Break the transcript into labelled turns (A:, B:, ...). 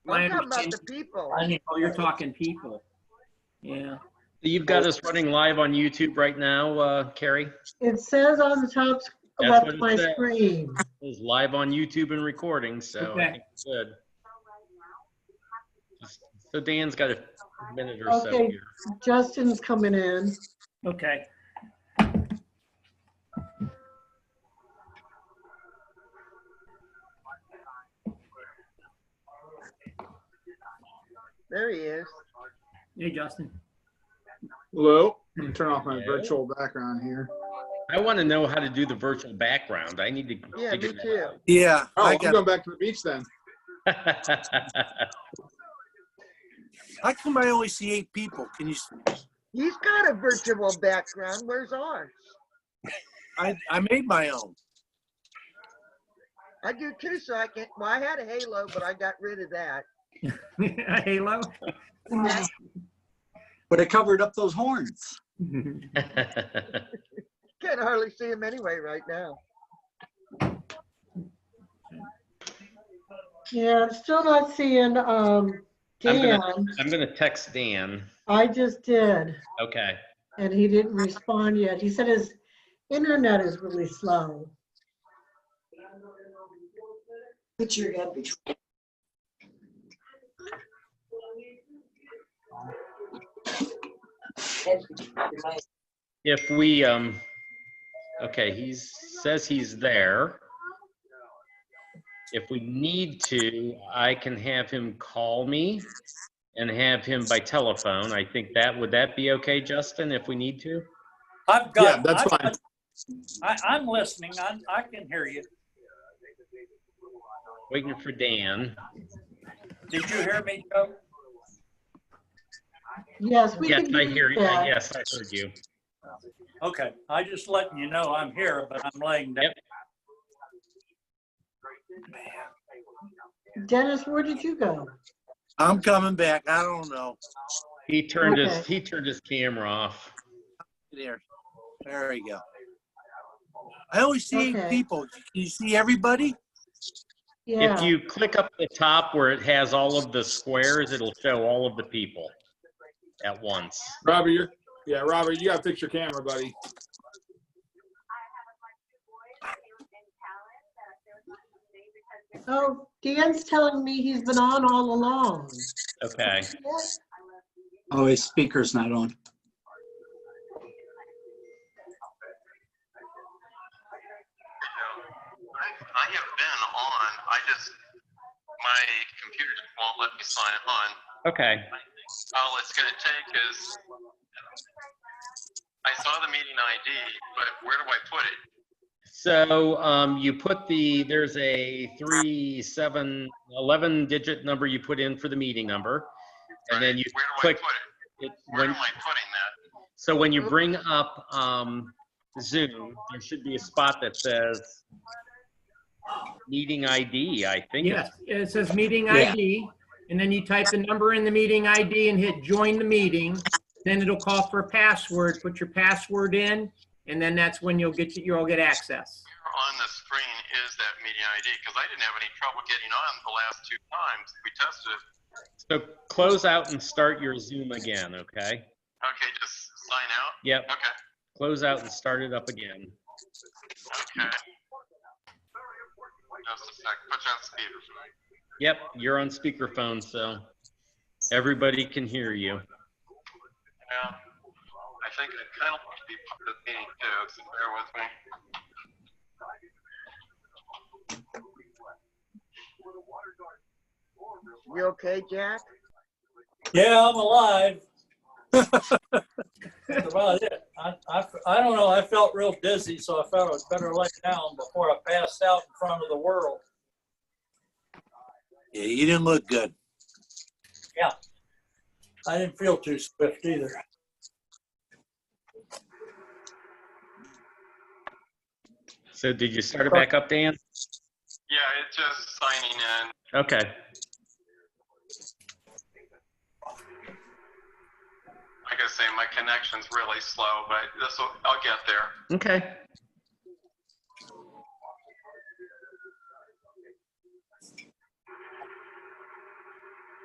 A: I
B: I'm talking about
A: understand.
B: the people.
A: Oh, you're talking people. Yeah.
C: You've got us running live on YouTube right now, uh, Carrie.
D: It says on the top s-
C: That's
D: left
C: what
D: of
C: it
D: my
C: says.
D: screen.
C: It's live on YouTube and recording, so I
A: Okay.
C: think it's good. So Dan's got a minute or so
D: Okay.
C: here.
D: Justin's coming in.
A: Okay.
B: There he is.
A: Hey, Justin.
E: Hello. Let me turn off my
C: Hello?
E: virtual background here.
C: I want to know how to do the virtual background. I need to
B: Yeah,
C: figure
B: me too.
F: Yeah,
E: Oh,
F: I
E: I'm
F: got.
E: going back to the beach then.
C: that out.
F: How come I only see eight people? Can you? s-
B: He's got a virtual background. Where's ours?
F: I I made my own.
B: I do too, so I can't. Well, I had a halo, but I got rid of that.
A: Halo.
G: But it covered up those horns.
B: Can't hardly see him anyway right now.
D: Yeah, I'm still not seeing, um,
C: I'm gonna-
D: Dan.
C: I'm going to text Dan.
D: I just did,
C: Okay.
D: and he didn't respond yet. He said his internet is really slow.
G: Put your head between.
C: If we, um, okay, he says he's there. If we need to, I can have him call me and have him by telephone. I think that, would that be okay, Justin, if we need to?
H: I've got.
E: Yeah, that's
H: I've
E: fine.
H: got- I, I'm listening. I, I can hear you.
C: Waiting for Dan.
H: Did you hear me, Joe?
D: Yes, we
C: Yes,
D: can
C: I hear
D: do
C: you.
D: that.
C: Yes, I heard you.
H: Okay, I just letting you know I'm here, but I'm laying down.
D: Dennis, where did you go?
F: I'm coming back. I don't know.
C: He turned his, he turned his camera off.
F: There, there we go. I only see
D: Okay.
F: eight people. Can you see everybody?
D: Yeah.
C: If you click up the top where it has all of the squares, it'll show all of the people at once.
E: Robert, you're, yeah, Robert, you got to fix your camera, buddy.
D: Oh, Dan's telling me he's been on all along.
C: Okay.
G: Oh, his speaker's not on.
I: I, I have been on. I just my computer just won't let me sign on.
C: Okay.
I: All it's going to take is I saw the meeting ID, but where do I put it?
C: So um, you put the, there's a three, seven, 11 digit number you put in for the meeting number. And then you
I: where do
C: click,
I: I put it?
C: it-
I: Where
C: when,
I: am I putting that?
C: so when you bring up um, Zoom, there should be a spot that says meeting ID, I think.
A: Yes, it says meeting
G: Yeah.
A: ID, and then you type the number in the meeting ID and hit join the meeting. Then it'll call for a password. Put your password in, and then that's when you'll get, you'll get access.
I: Where on the screen is that meeting ID? Because I didn't have any trouble getting on the last two times we tested it.
C: So close out and start your Zoom again, okay?
I: Okay, just sign out.
C: Yep,
I: Okay,
C: close out and start it up again.
I: okay. Just a sec. Put you on speaker.
C: Yep, you're on speakerphone, so everybody can hear you.
I: Yeah. Um, I think I kind of want to be part of the meeting too, so bear with me.
B: You okay, Jack?
H: Yeah, I'm alive. That's about it. I, I, I don't know. I felt real dizzy, so I thought I was better lay down before I passed out in front of the world.
F: Yeah, you didn't look good.
H: I didn't feel too swift either.
C: So did you start it back up, Dan?
I: Yeah, it's just signing in.
C: Okay.
I: Like I say, my connection's really slow, but this will, I'll get there.
C: Okay.